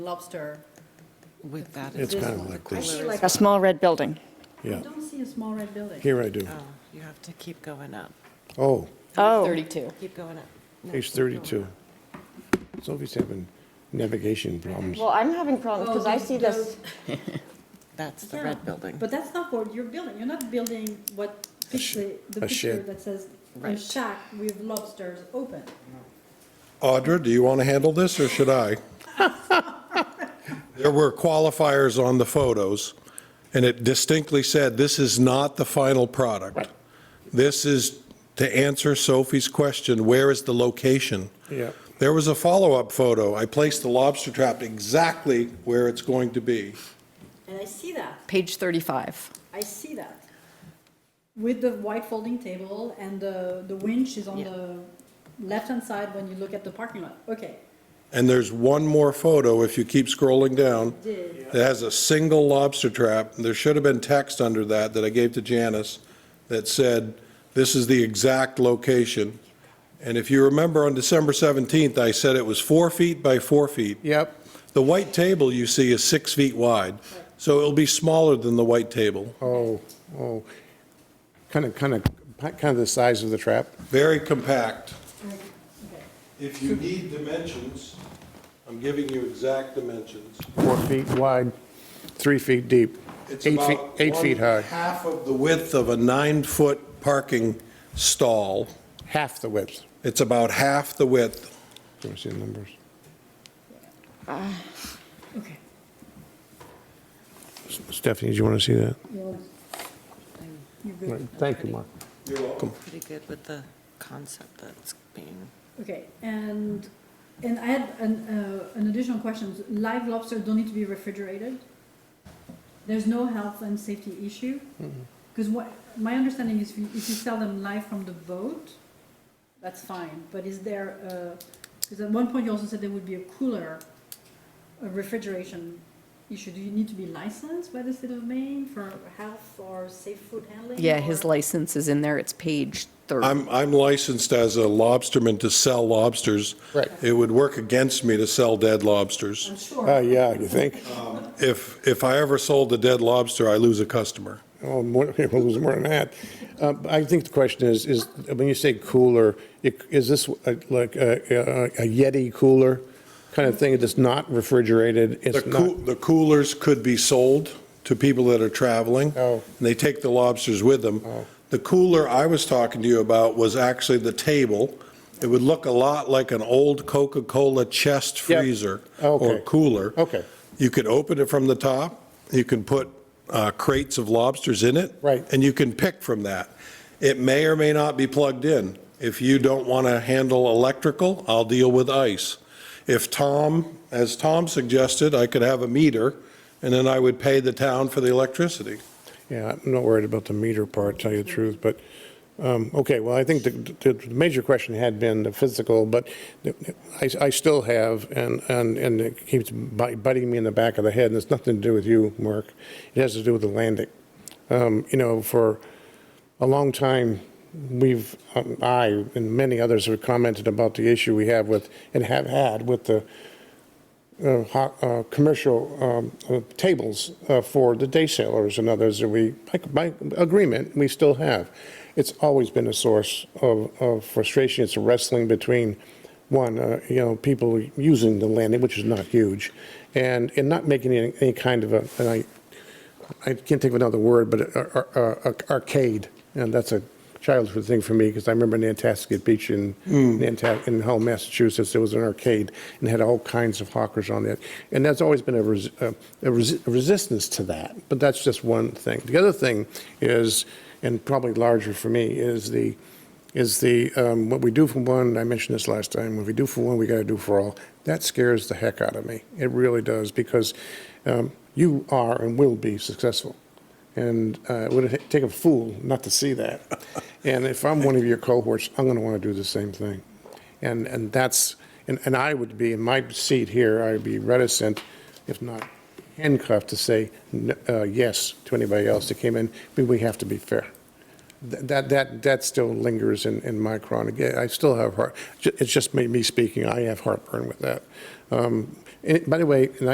lobster. With that, It's This kind of one. like I this, see like, A small red building. I yeah. don't see a small red building. Here I do. oh, you have to keep going up, Oh, Oh, 32. keep going up. No, page keep going 32. up. Sophie's having navigation problems. well, I'm having problems because I Oh, see those- this, That's the Yeah, red building. But that's not what you're building. You're not building what sh- picture, the a picture shed. that says a Right. shack with lobsters open. Audra, do you want to handle this, or should I? There were qualifiers on the photos, and it distinctly said, this is not the final product. This is, to answer Sophie's question, where is the location? Yeah. There was a follow-up photo. I placed the lobster trap exactly where it's going to be. And I see that. Page 35. I see that. With the white folding table and the, the winch is on Yeah. the left-hand side when you look at the parking lot. Okay. And there's one more photo, if you keep scrolling down, Did, that has a single lobster trap. There should have been text under that that I gave to Janice that said, this is the exact location. And if you remember on December 17th, I said it was four feet by four feet. Yep. The white table you see is six feet wide, so it'll be smaller than the white table. Oh, oh. Kind of, kind of, kind of the size of the trap. Very compact. okay. If you need dimensions, I'm giving you exact dimensions. Four feet wide, three feet deep, It's eight feet, about eight feet one high, Half of the width of a nine-foot parking stall. half the width. It's about half the width. Do you want to see the numbers? Okay. Stephanie, do you want to see that? You're- You're Right. good. Thank you, Mark. You're welcome. Pretty good with the concept that's being, Okay, and, and I had an, uh, an additional question. Live lobster don't need to be refrigerated? There's no health and safety issue? Because what, my understanding is if you if you sell them live from the boat, that's fine, but is there, uh, because at one point you also said there would be a cooler, a refrigeration issue. Do you need to be licensed by the state of Maine for health or safe food handling? Yeah, his or- license is in there. It's page 30. I'm, I'm licensed as a lobsterman to sell lobsters. Right. It would work against me to sell dead lobsters. I'm sure. Oh, yeah, you think? If, if I ever sold a dead lobster, I lose a customer. Oh, more, we'll lose more than that. Uh, but I think the question is, is when you say cooler, i- is this uh, like a, a- a Yeti cooler kind of thing that's not refrigerated? The It's coo, not, the coolers could be sold to people that are traveling. Oh. And they take the lobsters with them. Oh. The cooler I was talking to you about was actually the table. It would look a lot like an old Coca-Cola chest Yeah. freezer or Okay. cooler. Okay. You could open it from the top, you can put uh, crates of lobsters in it. Right. And you can pick from that. It may or may not be plugged in. If you don't want to handle electrical, I'll deal with ice. If Tom, as Tom suggested, I could have a meter, and then I would pay the town for the electricity. yeah, I'm not worried about the meter part, tell you the truth, but, um, okay, well, I think the, the the major question had been the physical, but I, I still have, and, and, and it keeps bi- biting me in the back of the head, and it's nothing to do with you, Mark. It has to do with the landing. Um, you know, for, a long time, we've, um, I and many others have commented about the issue we have with, and have had with the uh, ho- uh, commercial um, uh, tables uh, for the day sailors and others that we, by by agreement, we still have. It's always been a source of of frustration. It's a wrestling between, one, uh, you know, people using the landing, which is not huge, and, and not making any, any kind of a, and I, I can't think of another word, but uh, ar- ar- ar- arcade, and that's a childhood thing for me, because I remember Nantasket Beach in, Nanta- in Hull, Massachusetts, there was an arcade, and had all kinds of hawkers on it, and that's always been a res- a a resi- a resistance to that, but that's just one thing. The other thing is, and probably larger for me, is the, is the, um, what we do for one, I mentioned this last time, what we do for one, we got to do for all. That scares the heck out of me. It really does, because um, you are and will be successful. And uh, it would take a fool not to see that. And if I'm one of your cohorts, I'm going to want to do the same thing. And, and that's, and, and I would be, in my seat here, I'd be reticent, if not handcuffed, to say n- uh, yes to anybody else that came in, but we have to be fair. Th- That, that, that still lingers in, in my chronic, Yeah, I still have heart, ju- it's just me, me speaking, I have heartburn with that. Um, and By the way, and I